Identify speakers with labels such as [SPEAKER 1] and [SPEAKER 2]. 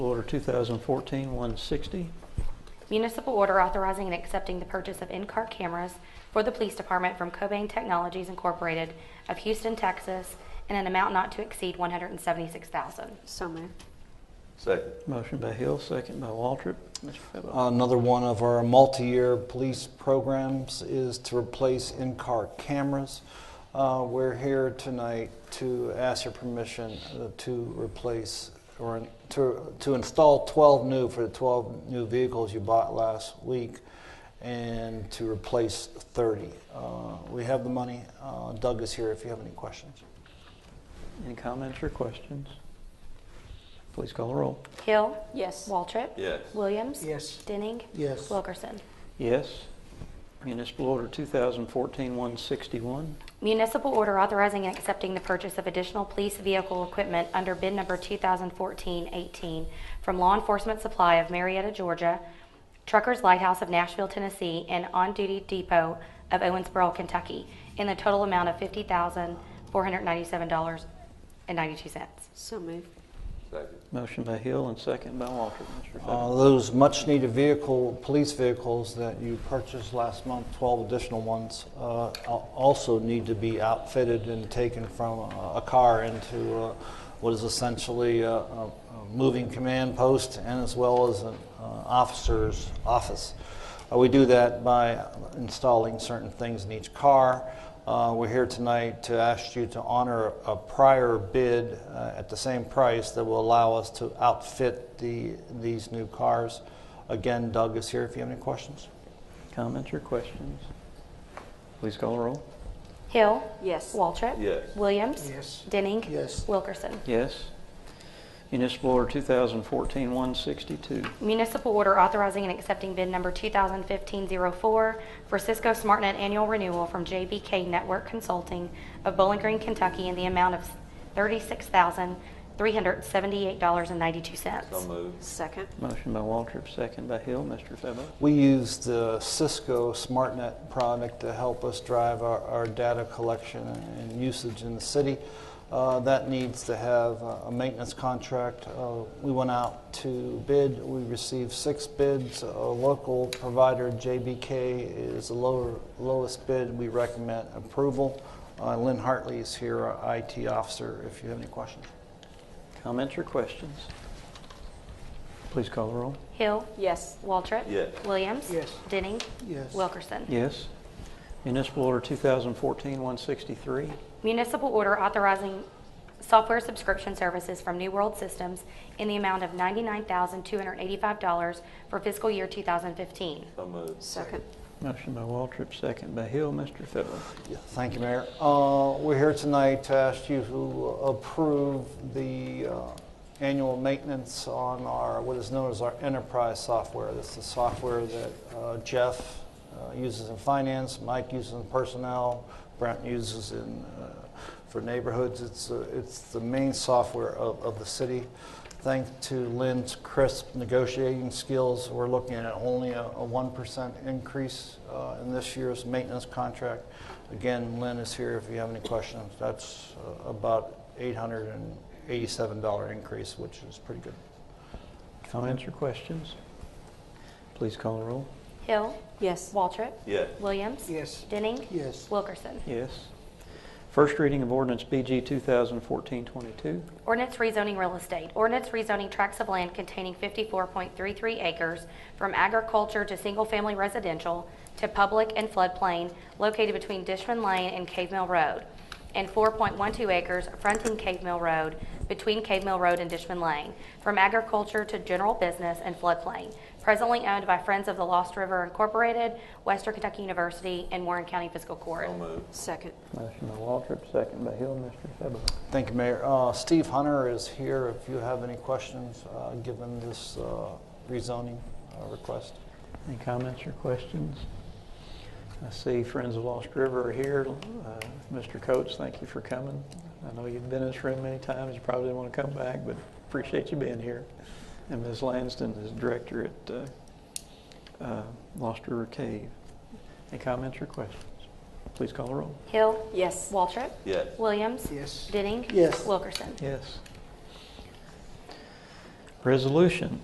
[SPEAKER 1] Order 2014-160.
[SPEAKER 2] Municipal order authorizing and accepting the purchase of in-car cameras for the police department from Cobain Technologies Incorporated of Houston, Texas, in an amount not to exceed 176000
[SPEAKER 3] So moved.
[SPEAKER 4] Second.
[SPEAKER 1] Motion by Hill, second by Waltrip. Mr. Febo.
[SPEAKER 5] Another one of our multi-year police programs is to replace in-car cameras. Uh, We're here tonight to ask your permission uh, to replace or to to install 12 new for the 12 new vehicles you bought last week and to replace 30. Uh, We have the money. Uh, Doug is here if you have any questions.
[SPEAKER 1] Any comments or questions? Please call the roll.
[SPEAKER 2] Hill.
[SPEAKER 3] Yes.
[SPEAKER 2] Waltrip.
[SPEAKER 4] Yes.
[SPEAKER 2] Williams.
[SPEAKER 6] Yes.
[SPEAKER 2] Denning.
[SPEAKER 6] Yes.
[SPEAKER 2] Wilkerson.
[SPEAKER 1] Yes. Municipal Order 2014-161.
[SPEAKER 2] Municipal order authorizing and accepting the purchase of additional police vehicle equipment under bid number 2014-18 from Law Enforcement Supply of Marietta, Georgia, Truckers Lighthouse of Nashville, Tennessee, and On Duty Depot of Owensboro, Kentucky, in the total amount of $50,497.92.
[SPEAKER 3] So moved.
[SPEAKER 4] Second.
[SPEAKER 1] Motion by Hill and second by Waltrip. Mr.
[SPEAKER 5] Uh,
[SPEAKER 1] Febo.
[SPEAKER 5] Those much-needed vehicle, police vehicles that you purchased last month, 12 additional ones, uh, al- also need to be outfitted and taken from a a car into uh, what is essentially a- a a moving command post and as well as an uh, officer's office. Uh, We do that by installing certain things in each car. Uh, We're here tonight to ask you to honor a prior bid uh, at the same price that will allow us to outfit the, these new cars. Again, Doug is here if you have any questions.
[SPEAKER 1] Comments or questions? Please call the roll.
[SPEAKER 2] Hill.
[SPEAKER 3] Yes.
[SPEAKER 2] Waltrip.
[SPEAKER 4] Yes.
[SPEAKER 2] Williams.
[SPEAKER 6] Yes.
[SPEAKER 2] Denning.
[SPEAKER 6] Yes.
[SPEAKER 2] Wilkerson.
[SPEAKER 1] Yes. Municipal Order 2014-162.
[SPEAKER 2] Municipal order authorizing and accepting bid number 2015-04 for Cisco SmartNet annual renewal from JBK Network Consulting of Bowling Green, Kentucky in the amount of
[SPEAKER 4] So
[SPEAKER 2] $36,378.92.
[SPEAKER 4] moved.
[SPEAKER 3] Second.
[SPEAKER 1] Motion by Waltrip, second by Hill. Mr. Febo.
[SPEAKER 5] We use the Cisco SmartNet product to help us drive our, our data collection and usage in the city. Uh, that needs to have a a maintenance contract. Uh, we went out to bid. We received six bids. A local provider, JBK, is the lower, lowest bid. We recommend approval. Uh, Lynn Hartley is here, our IT officer, if you have any questions.
[SPEAKER 1] Comments or questions? Please call the roll.
[SPEAKER 2] Hill.
[SPEAKER 3] Yes.
[SPEAKER 2] Waltrip.
[SPEAKER 4] Yes.
[SPEAKER 2] Williams.
[SPEAKER 6] Yes.
[SPEAKER 2] Denning.
[SPEAKER 6] Yes.
[SPEAKER 2] Wilkerson.
[SPEAKER 1] Yes. Municipal Order 2014-163.
[SPEAKER 2] Municipal order authorizing software subscription services from New World Systems in the amount of $99,285 for fiscal year 2015.
[SPEAKER 4] So moved.
[SPEAKER 3] Second.
[SPEAKER 1] Motion by Waltrip, second by Hill. Mr. Febo.
[SPEAKER 5] Yeah, Thank you, Mayor. Uh, We're here tonight to ask you to approve the uh, annual maintenance on our, what is known as our enterprise software. That's the software that uh, Jeff uh, uses in finance, Mike uses in personnel, Brent uses in, uh, for neighborhoods. It's, uh, it's the main software of, of the city. Thanks to Lynn's crisp negotiating skills, we're looking at only a, a 1% increase uh, in this year's maintenance contract. Again, Lynn is here if you have any questions. That's uh, about $887 increase, which is pretty good.
[SPEAKER 1] Comments or questions? Please call the roll.
[SPEAKER 2] Hill.
[SPEAKER 3] Yes.
[SPEAKER 2] Waltrip.
[SPEAKER 4] Yes.
[SPEAKER 2] Williams.
[SPEAKER 6] Yes.
[SPEAKER 2] Denning.
[SPEAKER 6] Yes.
[SPEAKER 2] Wilkerson.
[SPEAKER 1] Yes. First reading of ordinance BG 2014-22.
[SPEAKER 2] Ordinance rezoning real estate. Ordinance rezoning tracts of land containing 54.33 acres from agriculture to single-family residential to public and floodplain located between Dishman Lane and Cave Mill Road, and 4.12 acres fronting Cave Mill Road between Cave Mill Road and Dishman Lane, from agriculture to general business and floodplain, presently owned by Friends of the Lost River Incorporated, Western Kentucky University, and Warren County Fiscal Court.
[SPEAKER 4] So moved.
[SPEAKER 3] Second.
[SPEAKER 1] Motion by Waltrip, second by Hill. Mr. Febo.
[SPEAKER 5] Thank you, Mayor. Uh, Steve Hunter is here if you have any questions, uh, given this uh, rezoning uh, request.
[SPEAKER 1] Any comments or questions? I see Friends of Lost River are here. Uh, Mr. Coates, thank you for coming. I know you've been in this room many times, you probably didn't want to come back, but appreciate you being here. And Ms. Lansden is director at uh, uh, Lost River Cave. Any comments or questions? Please call the roll.
[SPEAKER 2] Hill.
[SPEAKER 3] Yes.
[SPEAKER 2] Waltrip.
[SPEAKER 4] Yes.
[SPEAKER 2] Williams.
[SPEAKER 6] Yes.
[SPEAKER 2] Denning.
[SPEAKER 6] Yes.
[SPEAKER 2] Wilkerson.
[SPEAKER 1] Yes. Resolution